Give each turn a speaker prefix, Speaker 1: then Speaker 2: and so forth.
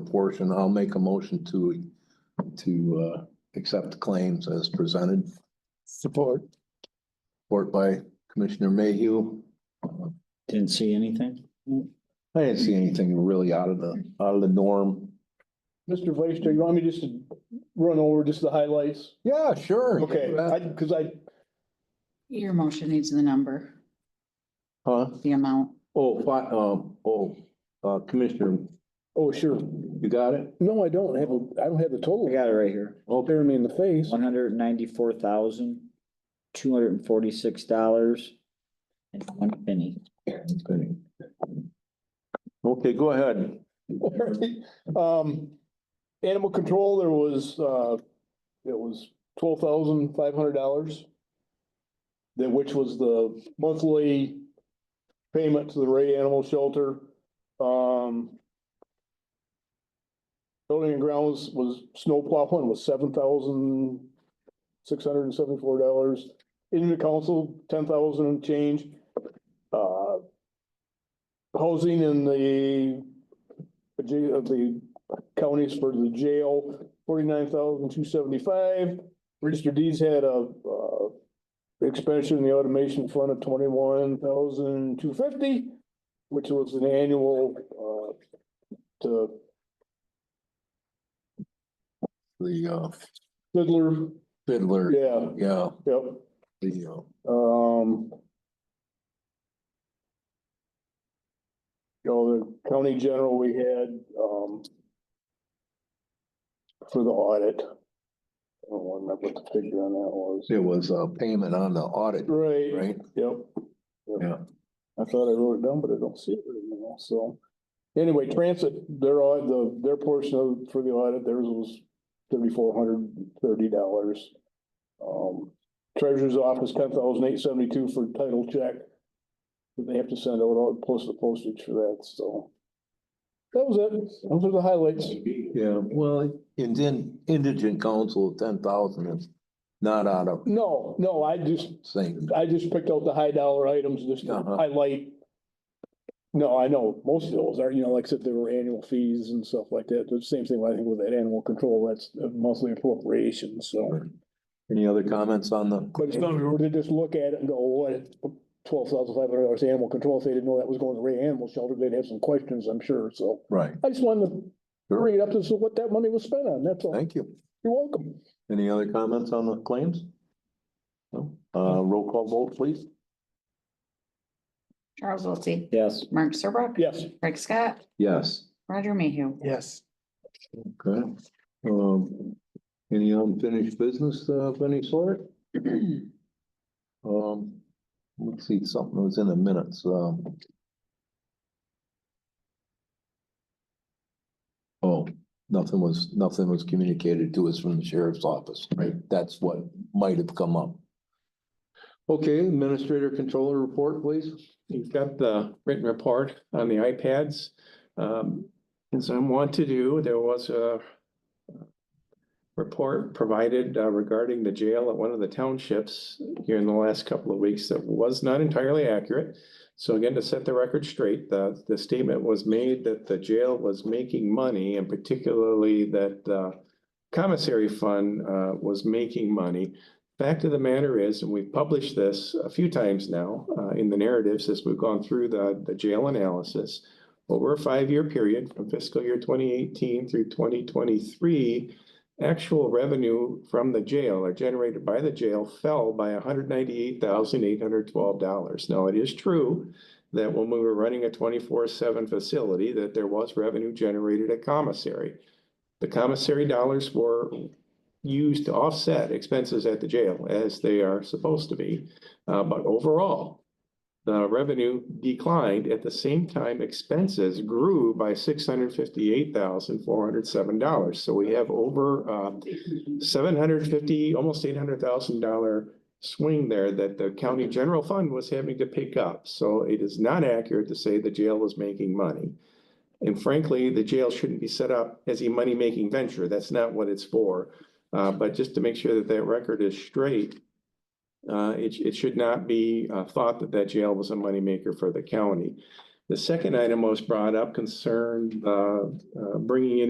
Speaker 1: proportion, I'll make a motion to, to, uh, accept the claims as presented.
Speaker 2: Support.
Speaker 1: Support by Commissioner Mayhew.
Speaker 3: Didn't see anything?
Speaker 1: I didn't see anything really out of the, out of the norm.
Speaker 2: Mr. Vice Chair, you want me just to run over just the highlights?
Speaker 1: Yeah, sure.
Speaker 2: Okay, I, cause I,
Speaker 4: Your motion needs the number,
Speaker 1: Huh?
Speaker 4: the amount.
Speaker 1: Oh, fi- um, oh, uh, Commissioner,
Speaker 2: oh, sure.
Speaker 1: you got it?
Speaker 2: No, I don't have, a. I don't have the total.
Speaker 3: I got it right here.
Speaker 2: Staring me in the face.
Speaker 3: One hundred ninety-four thousand, two hundred and forty-six dollars and one penny.
Speaker 1: Okay, go ahead.
Speaker 2: Um, animal control, there was, uh, it was twelve thousand five hundred dollars. That which was the monthly payment to the Ray Animal Shelter, um. Building and grounds was snow plowing was seven thousand six hundred and seventy-four dollars. In the council, ten thousand and change. Uh. Housing in the, the j- of the counties for the jail, forty-nine thousand two seventy-five. Register deeds had a, uh, expansion in the automation fund of twenty-one thousand two fifty, which was an annual, uh, to
Speaker 1: The, uh,
Speaker 2: Fiddler,
Speaker 1: fiddler,
Speaker 2: yeah,
Speaker 1: yeah,
Speaker 2: yep,
Speaker 1: the, uh,
Speaker 2: um. You know, the county general we had, um, for the audit. I don't remember what the figure on that was.
Speaker 1: it was a payment on the audit,
Speaker 2: Right.
Speaker 1: right?
Speaker 2: Yep.
Speaker 1: Yeah.
Speaker 2: I thought I wrote it down, but I don't see it anymore, so. Anyway, transit, their, au- the, their portion of, for the audit, theirs was thirty-four hundred and thirty dollars. Um, treasurer's office, ten thousand eight seventy-two for title check. But They have to send out, all- post the postage for that, so. That was it, those are the highlights.
Speaker 1: Yeah, well, and then indigent counsel, ten thousand is not out of
Speaker 2: No, no, I just,
Speaker 1: sync.
Speaker 2: I just picked out the high dollar items just to
Speaker 1: Uh-huh.
Speaker 2: highlight. No, I know, most of those are, you know, like I said, there were annual fees and stuff like that, the same thing, I think with that animal control, that's a monthly appropriation, so.
Speaker 1: Any other comments on the?
Speaker 2: But it's not, where they just look at it and go, "Oh, what, twelve thousand five hundred dollars animal control, if they didn't know that was going to Ray Animal Shelter, they'd have some questions, I'm sure, so.
Speaker 1: Right,
Speaker 2: I just wanted to bring it up, this is what that money was spent on, that's all,
Speaker 1: thank you.
Speaker 2: you're welcome.
Speaker 1: Any other comments on the claims? No, uh, roll call vote, please.
Speaker 4: Charles Wiltie,
Speaker 3: Yes.
Speaker 4: Mark Serbrook,
Speaker 2: Yes.
Speaker 4: Craig Scott,
Speaker 1: Yes.
Speaker 4: Roger Mayhew.
Speaker 2: Yes.
Speaker 1: Okay, um, any unfinished business uh, of any sort? Um, let's see, something was in the minutes, um. Oh, nothing was, nothing was communicated to us from the sheriff's office, right? That's what might have come up. Okay, administrator controller report, please.
Speaker 5: You've got the written report on the iPads. Um, as I want to do, there was a uh, report provided uh, regarding the jail at one of the townships here in the last couple of weeks that was not entirely accurate. So again, to set the record straight, the, the statement was made that the jail was making money and particularly that the commissary fund, uh, was making money. Fact of the matter is, and we've published this a few times now, uh, in the narratives as we've gone through the, the jail analysis. Over a five-year period from fiscal year twenty eighteen through twenty twenty-three, actual revenue from the jail or generated by the jail fell by hundred ninety-eight thousand eight hundred twelve dollars. Now, it is true that when we were running a twenty-four-seven facility, that there was revenue generated at commissary. The commissary dollars were used to offset expenses at the jail as they are supposed to be. Uh, but overall, the revenue declined at the same time expenses grew by six hundred fifty-eight thousand, four hundred seven dollars. So we have over, uh, seven hundred fifty, almost eight hundred thousand dollar swing there that the county general fund was having to pick up. So it is not accurate to say the jail was making money. And frankly, the jail shouldn't be set up as a money-making venture. That's not what it's for. Uh, but just to make sure that that record is straight, uh, it, it should not be, uh, thought that that jail was a moneymaker for the county. The second item was brought up concerned, uh, uh, bringing in